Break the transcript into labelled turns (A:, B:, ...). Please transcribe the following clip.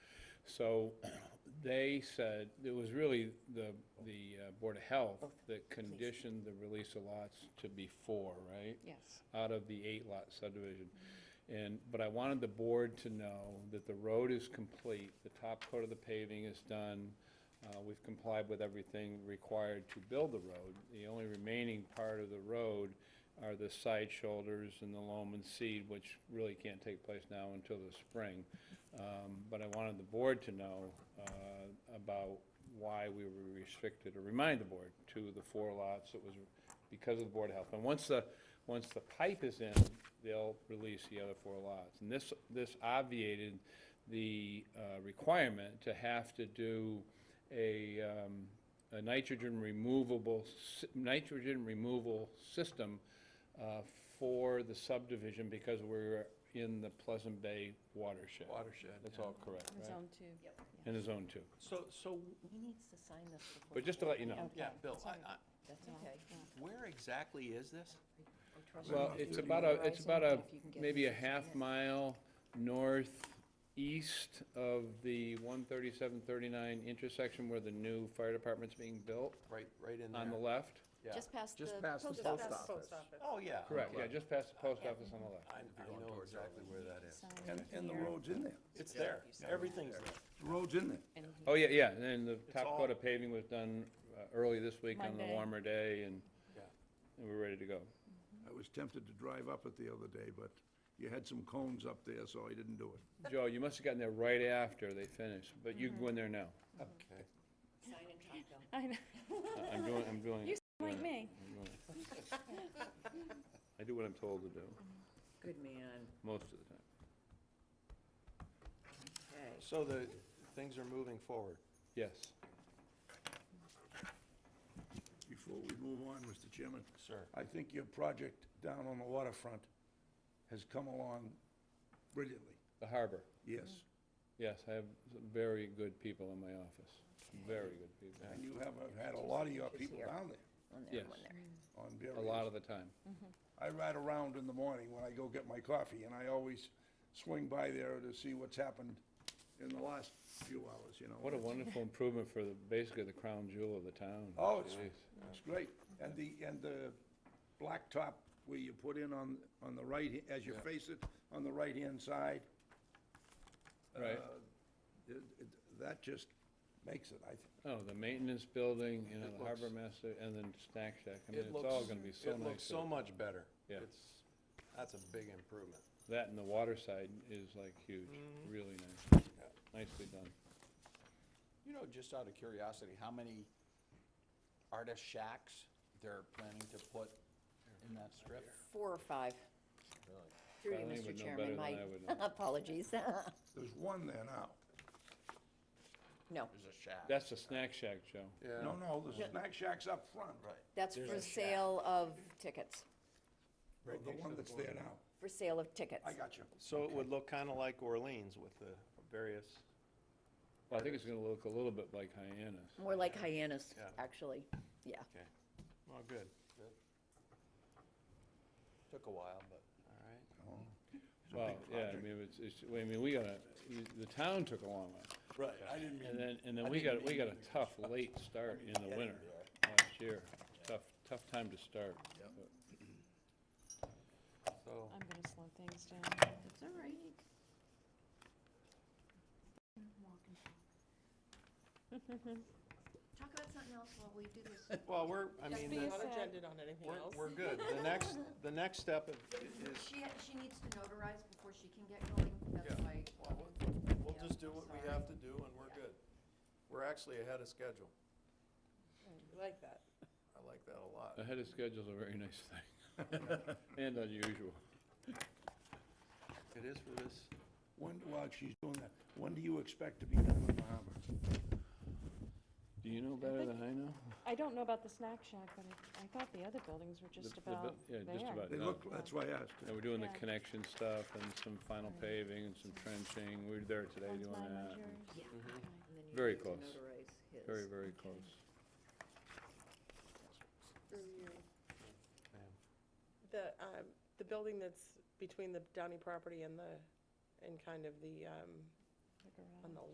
A: So they said, it was really the, the uh, Board of Health that conditioned the release of lots to be four, right?
B: Yes.
A: Out of the eight lot subdivision. And, but I wanted the board to know that the road is complete, the top coat of the paving is done. uh, We've complied with everything required to build the road. The only remaining part of the road are the side shoulders and the loam and seed, which really can't take place now until the spring. Um, But I wanted the board to know uh, about why we were restricted, or remind the board, to the four lots that was because of the Board of Health. And once the, once the pipe is in, they'll release the other four lots. And this, this obviated the uh, requirement to have to do a, um, a nitrogen removable, sy- nitrogen removal system uh, for the subdivision because we're in the Pleasant Bay watershed.
C: watershed.
A: That's all correct, right?
B: Zone two.
A: And the zone two.
C: So, so,
D: He needs to sign this before.
A: But just to let you know,
C: yeah,
B: Okay,
C: Bill, I,
B: sorry.
C: I,
D: That's okay.
C: where exactly is this?
A: well, it's about a, it's about a, maybe a half mile northeast of the one thirty-seven, thirty-nine intersection where the new fire department's being built,
C: Right, right in there?
A: on the left.
C: Yeah.
B: Just past the
E: Just past the
B: post
E: post
B: office.
E: office.
C: Oh, yeah.
A: Correct, yeah, just past the post office on the left.
C: I, I know exactly where that is.
B: Sign
E: And, and the
B: here.
E: road's in there.
C: It's there. Everything's there.
E: The road's in there.
B: And he-
A: Oh, yeah, yeah, and then the top
C: all-
A: coat of paving was done uh, early this week on the
B: Monday.
A: warmer day, and,
C: Yeah.
A: and we're ready to go.
E: I was tempted to drive up it the other day, but you had some cones up there, so I didn't do it.
A: Joe, you must have gotten there right after they finished, but you can go in there now.
C: Okay.
D: Sign and talk, Bill.
B: I know,
A: I- I'm doing, I'm doing.
B: You
A: it.
B: like me.
A: I'm doing it. I do what I'm told to do,
D: Good man.
A: most of the time.
D: Okay.
C: So the, things are moving forward.
A: Yes.
E: Before we move on, Mr. Chairman,
C: Sir.
E: I think your project down on the waterfront has come along brilliantly.
A: The harbor,
E: Yes,
A: yes, I have some very good people in my office, very good people,
E: and you have uh, had a lot of your people down there
A: yes,
E: on
A: a lot
E: various.
A: of the time.
E: I ride around in the morning when I go get my coffee, and I always swing by there to see what's happened in the last few hours, you know.
A: What a wonderful improvement for the, basically the crown jewel of the town.
E: Oh, it's,
A: Jeez.
E: it's great. And the, and the blacktop where you put in on, on the right, h- as you face it, on the right-hand side.
A: Right.
E: uh, it- it- That just makes it, I, th-
A: Oh, the maintenance building, you know,
C: It
A: the harbor
C: looks-
A: master, and then snack shack, I mean,
C: It
A: it's
C: looks-
A: all gonna be so
C: It looks
A: nice.
C: so much better.
A: Yeah.
C: It's, that's a big improvement.
A: That and the water side is like huge,
C: Mm-hmm.
A: really nice, nicely done.
F: You know, just out of curiosity, how many artist shacks they're planning to put in that strip?
D: Four or five. Through you,
A: Darlene
D: Mr.
A: would know better
D: Chairman,
A: than
D: my
A: I would know.
D: apologies.
E: there's one there now.
D: No,
F: There's a shack.
A: That's the snack shack, Joe.
C: Yeah.
E: No, no, the snack shack's up front. Right.
D: that's for sale of tickets,
E: The one that's there now.
D: for sale of tickets.
E: I got you.
C: So it would look kinda like Orleans with the various,
A: Well, I think it's gonna look a little bit like Hyannis.
D: More like hyenas,
C: Yeah.
D: actually, yeah.
C: okay. Well, good. Took a while, but, all right.
A: Well, yeah, I mean, it's, it's, I mean, we got a, the town took a long one.
E: Right, I didn't
A: And then, and then we got, we got a tough late start in the winter last year. Tough, tough time to start. but-
C: So,
B: I'm gonna slow things down.
D: That's all right.
G: Talk about something else while we do this.
C: well, we're, I mean,
B: be
C: the-
B: a sec.
H: on anything
C: we're, we're good. The next, the next step i- is,
G: She, ha- she needs to notarize before she can get going,
C: Yeah.
G: that's why.
C: Well, we'll just do what we have to do and we're good. We're actually ahead of schedule.
H: Like that.
C: I like that a lot.
A: Ahead of schedule's a very nice thing, and unusual.
C: It is for this.
E: When, while she's doing that, when do you expect to be done with the harbor?
A: Do you know better than I know?
B: I don't know about the snack shack, but I, I thought the other buildings were
A: The-
B: just
A: the bu-
B: about
A: Yeah,
B: there.
A: just about
E: They
A: done.
E: look, that's why I asked.
A: And we're doing the
B: Yeah.
A: connection stuff and some final paving and some trenching. We were there today
B: One's
A: doing
B: mine,
A: that.
B: one's yours.
D: Yeah.
C: Mm-hmm.
D: And then you
A: Mm-hmm. Very
D: need to
A: close.
D: notarize his.
A: Very, very close.
H: The, um, the building that's between the Downey property and the, and kind of the, um,
B: Look around.
H: on the